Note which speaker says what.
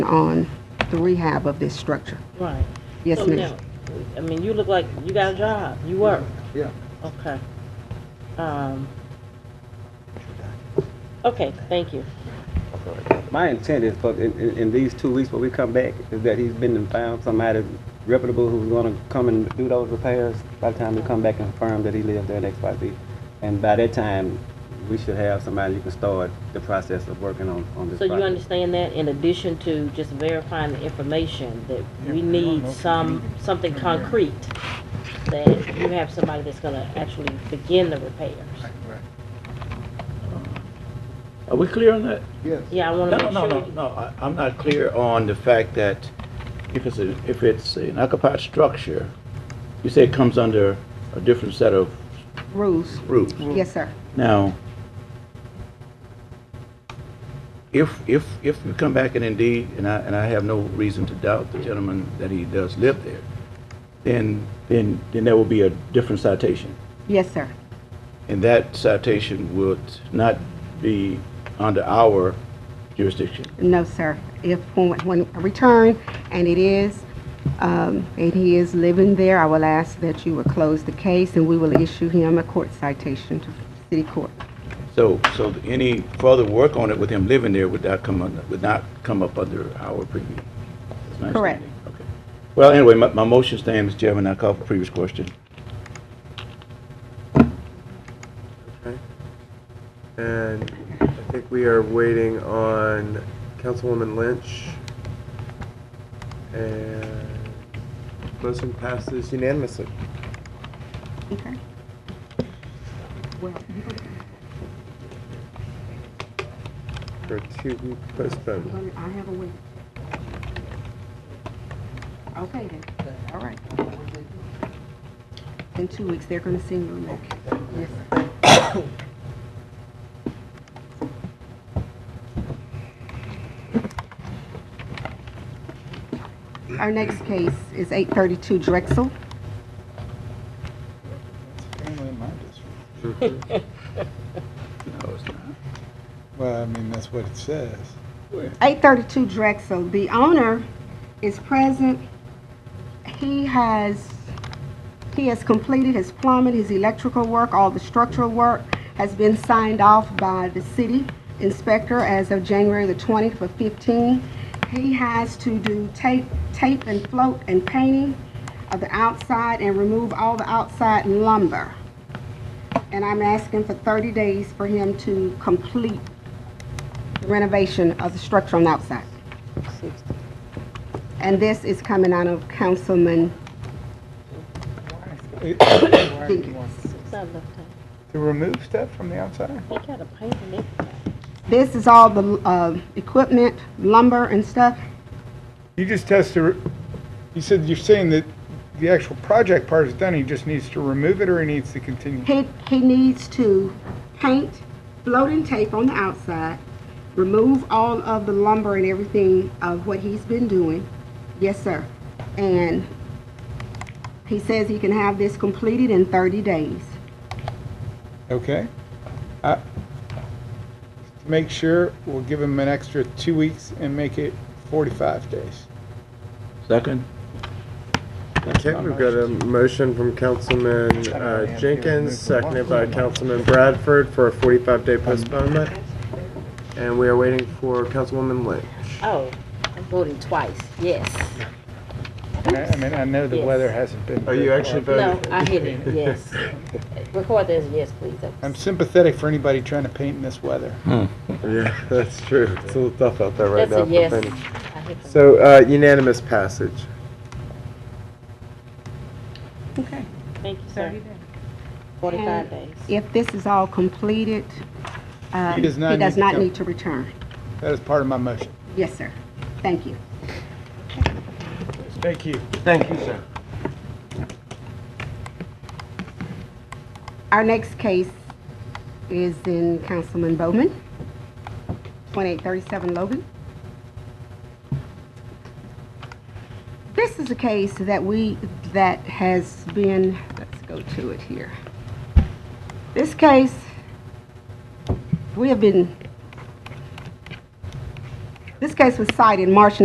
Speaker 1: on the rehab of this structure.
Speaker 2: Right.
Speaker 1: Yes,
Speaker 2: So
Speaker 1: ma'am.
Speaker 2: now, I mean, you look like you got a job, you work,
Speaker 3: Yeah.
Speaker 2: okay. Um, okay, thank you.
Speaker 4: My intent is, for in, in, in these two weeks when we come back, is that he's been and found somebody reputable who's gonna come and do those repairs by the time we come back and confirm that he lives there at XYZ. And by that time, we should have somebody who can start the process of working on, on this
Speaker 2: So you
Speaker 4: project.
Speaker 2: understand that in addition to just verifying the information, that we need some, something concrete, that you have somebody that's gonna actually begin the repairs.
Speaker 5: Are we clear on that?
Speaker 3: Yes.
Speaker 2: Yeah, I wanna
Speaker 5: No,
Speaker 2: make sure.
Speaker 5: no, no,
Speaker 2: you-
Speaker 5: no, I- I'm not clear on the fact that if it's, a- if it's an occupied structure, you say it comes under a different set of
Speaker 1: Rules.
Speaker 5: rules.
Speaker 1: Yes, sir.
Speaker 5: Now, if, if, if we come back and indeed, and I, and I have no reason to doubt the gentleman that he does live there, then, then, then there will be a different citation.
Speaker 1: Yes, sir.
Speaker 5: And that citation would not be under our jurisdiction.
Speaker 1: No, sir. If, when when I return, and it is, um, and he is living there, I will ask that you will close the case, and we will issue him a court citation to city court.
Speaker 5: So, so any further work on it with him living there would not come, under- would not come up under our preview? That's my
Speaker 1: Correct.
Speaker 5: understanding. Okay. Well, anyway, my, my motion stands, Mr. Chairman, I call for previous question.
Speaker 3: And I think we are waiting on Councilwoman Lynch. And motion passes unanimously.
Speaker 1: Okay. Well,
Speaker 3: For two week postponed.
Speaker 1: I have a wait. Okay, then. All right. In two weeks, they're gonna send you a letter. Yes, sir. Our next case is eight thirty-two Drexel.
Speaker 5: No, it's not.
Speaker 6: Well, I mean, that's what it says.
Speaker 1: Eight thirty-two Drexel. The owner is present. He has, he has completed his plumbing, his electrical work, all the structural work has been signed off by the city inspector as of January the twentieth of fifteen. He has to do tape, tape and float and painting of the outside and remove all the outside lumber. And I'm asking for thirty days for him to complete renovation of the structure on the outside. And this is coming out of Councilman Jenkins.
Speaker 2: It's not enough time.
Speaker 6: To remove stuff from the outside?
Speaker 2: He got a pain in it.
Speaker 1: This is all the, uh, equipment, lumber and stuff.
Speaker 6: You just has to, re- you said, you're saying that the actual project part is done, he just needs to remove it or he needs to continue?
Speaker 1: He, he needs to paint floating tape on the outside, remove all of the lumber and everything of what he's been doing. Yes, sir. And he says he can have this completed in thirty days.
Speaker 6: Okay. I- To make sure, we'll give him an extra two weeks and make it 45 days.
Speaker 5: Second?
Speaker 3: Okay, we've got a motion from Councilman uh, Jenkins, seconded by Councilman Bradford for a forty-five day postponement. And we are waiting for Councilwoman Lynch.
Speaker 2: Oh, I'm voting twice, yes.
Speaker 6: And I I mean, I know the
Speaker 2: Yes.
Speaker 6: weather hasn't been.
Speaker 3: Are you
Speaker 6: very
Speaker 3: actually
Speaker 6: hot.
Speaker 2: No,
Speaker 3: voting?
Speaker 2: I hit it, yes. Record this, yes, please. That's-
Speaker 6: I'm sympathetic for anybody trying to paint in this weather.
Speaker 3: Yeah, that's true. It's a little tough out there right
Speaker 2: That's
Speaker 3: now.
Speaker 2: a
Speaker 3: for
Speaker 2: yes.
Speaker 3: many.
Speaker 2: I hit the-
Speaker 3: So uh, unanimous passage.
Speaker 1: Okay.
Speaker 2: Thank you, sir. Forty-five days.
Speaker 1: If this is all completed, uh,
Speaker 6: He
Speaker 1: he
Speaker 6: does not need
Speaker 1: does
Speaker 6: to
Speaker 1: not
Speaker 6: come.
Speaker 1: need to return.
Speaker 6: That is part of my motion.
Speaker 1: Yes, sir. Thank you.
Speaker 6: Thank you.
Speaker 3: Thank you, sir.
Speaker 1: Our next case is in Councilman Bowman, 2837 Logan. This is a case that we, that has been, let's go to it here. This case, we have been, this case was cited March